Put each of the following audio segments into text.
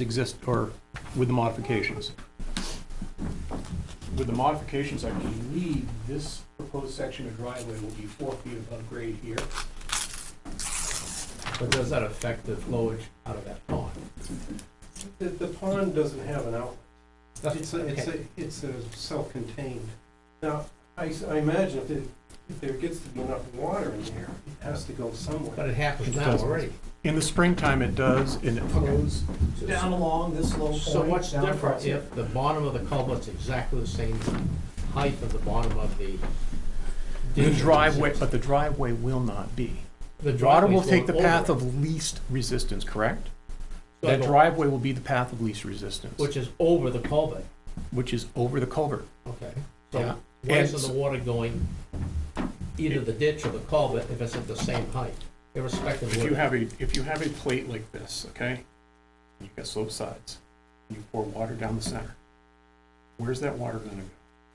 exist, or with the modifications. With the modifications, I believe this proposed section of driveway will be four feet above grade here. But does that affect the flowage out of that pond? The, the pond doesn't have an outlet. It's a, it's Okay. a, it's a self-contained. Now, I, s- I imagine if it, if there gets to be enough water in there, it has to go somewhere. But it happens It now doesn't. already. In the springtime, it does, and it flows down along this low point. So what's down different across here. if the bottom of the culvert's exactly the same height of the bottom of the The ditch? driveway, but the driveway will not be. The Water driveway's will take the going over path it. of least resistance, correct? So That the- driveway will be the path of least resistance, Which is over the culvert. which is over the culvert. Okay. Yeah. So where's And the so- water going? Either the ditch or the culvert if it's at the same height, irrespective of If where. you have a, if you have a plate like this, okay, you've got sloped sides, you pour water down the center, where's that water gonna go?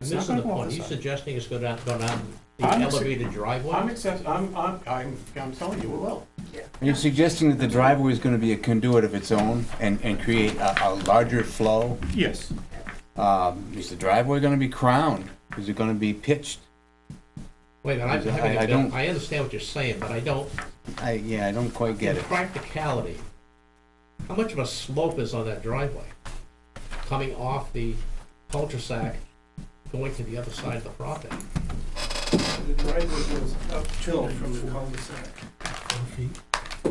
It's not Missing gonna the go off point, the you side. suggesting it's gonna go down the I'm- elevated I'm driveway? accept, I'm, I'm, I'm, I'm telling you, it will. You're suggesting that the driveway is gonna be a conduit of its own and, and create a, a larger flow? Yes. Um, is the driveway gonna be crowned? Is it gonna be pitched? Wait, a minute, I'm I- having, I a don't- bit- I understand what you're saying, but I don't, I, yeah, I don't quite get in it. practicality, how much of a slope is on that driveway? Coming off the cul-de-sac, going to the other side of the property? The driveway goes uphill from the cul-de-sac.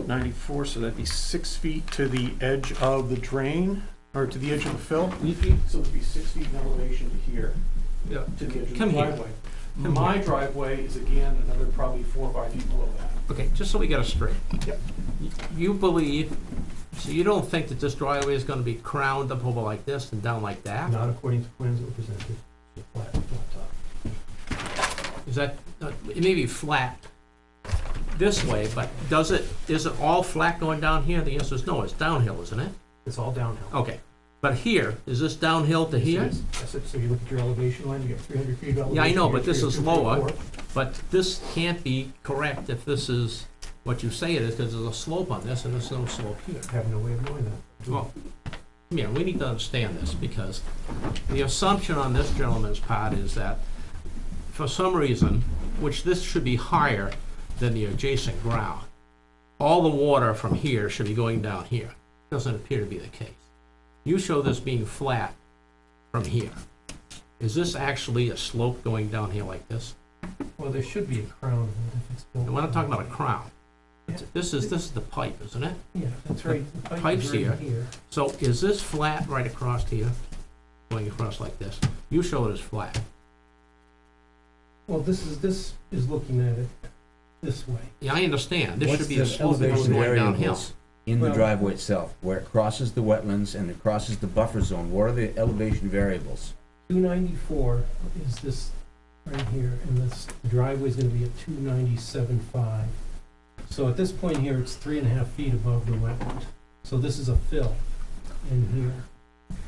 Ninety-four, so that'd be six feet to the edge of the drain, or to the edge of the fill? So it'd be six feet in elevation to here, Yeah. to the edge of the Come here. driveway. Come My driveway is again another probably four or five feet below that. Okay, just so we get it straight. Yep. Y- You believe, so you don't think that this driveway is gonna be crowned up over like this and down like that? Not according to plans that were presented, the flat, flat top. Is that, uh, it may be flat this way, but does it, is it all flat going down here? The answer is no, it's downhill, isn't it? It's all downhill. Okay, but here, is this downhill to here? Yes, That's it, so you look at your elevation line, you get three hundred feet of elevation. Yeah, I know, you but get this is 302, lower. 304. But this can't be correct if this is what you say it is, because there's a slope on this and there's no slope here. I have no way of knowing that. Well, yeah, we need to understand this, because the assumption on this gentleman's part is that for some reason, which this should be higher than the adjacent ground, all the water from here should be going down here. Doesn't appear to be the case. You show this being flat from here. Is this actually a slope going down here like this? Well, there should be a crown if it's built. And we're not talking about a crown. It's- This is, this is the pipe, isn't it? Yeah, that's right. The pipe is Pipes right here. So is this flat right across here, going across like this? You show it as flat. Well, this is, this is looking at it this way. Yeah, I understand, this What's should be the a slope that goes elevation going downhill. variables In the driveway itself, where it crosses the wetlands and it crosses the buffer zone, what are the elevation variables? Two ninety-four is this right here, and this driveway's gonna be at two ninety-seven five. So at this point here, it's three and a half feet above the wetland. So this is a fill in here.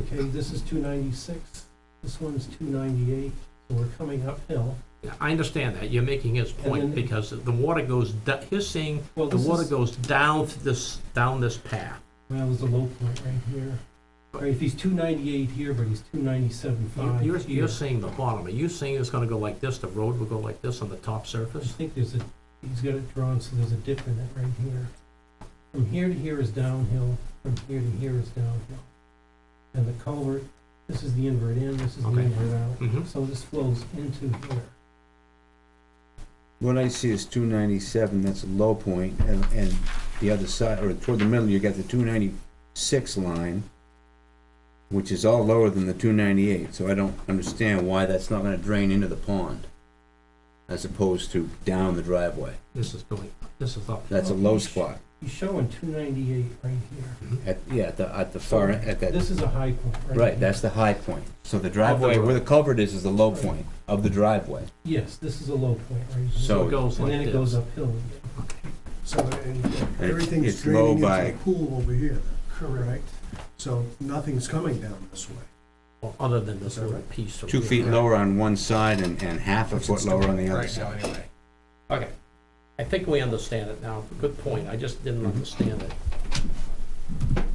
Okay, this is two ninety-six, this one's two ninety-eight, so we're coming uphill. Yeah, I understand that, you're making his point, And then- because the water goes, do- he's saying Well, the this water is, goes down this, down this path. well, is the low point right here. Right, if he's two ninety-eight here, but he's two ninety-seven You- five You're, here. you're saying the bottom, are you saying it's gonna go like this, the road will go like this on the top I surface? think there's a, he's got it drawn, so there's a dip in it right here. From Mm-hmm. here to here is downhill, from here to here is downhill. And the culvert, this is the invert in, this is the Okay. invert out, Mm-hmm, so this flows into here. What I see is two ninety-seven, that's a low point, and, and the other side, or toward the middle, you got the two ninety-six line, which is all lower than the two ninety-eight, so I don't understand why that's not gonna drain into the pond, as opposed to down the driveway. this is going, this is up. That's a low spot, He's showing two ninety-eight right here. at, yeah, at the, at the far, end- at that, This is a high point, right? right, here. that's the high point. So the driveway, where the culvert is, is the low point of the driveway. Yes, this is a low point right here. So- It goes And like then it this. goes uphill again. So, and And everything's it's low draining into by- the pool over here, correct? So nothing's coming down this way. Well, Other than this Is that little right? piece. over Two here. feet lower on one side and, and half a Which foot it's lower on the other right now, side. Anyway. Okay, I think we understand it now, good point, I just didn't understand it.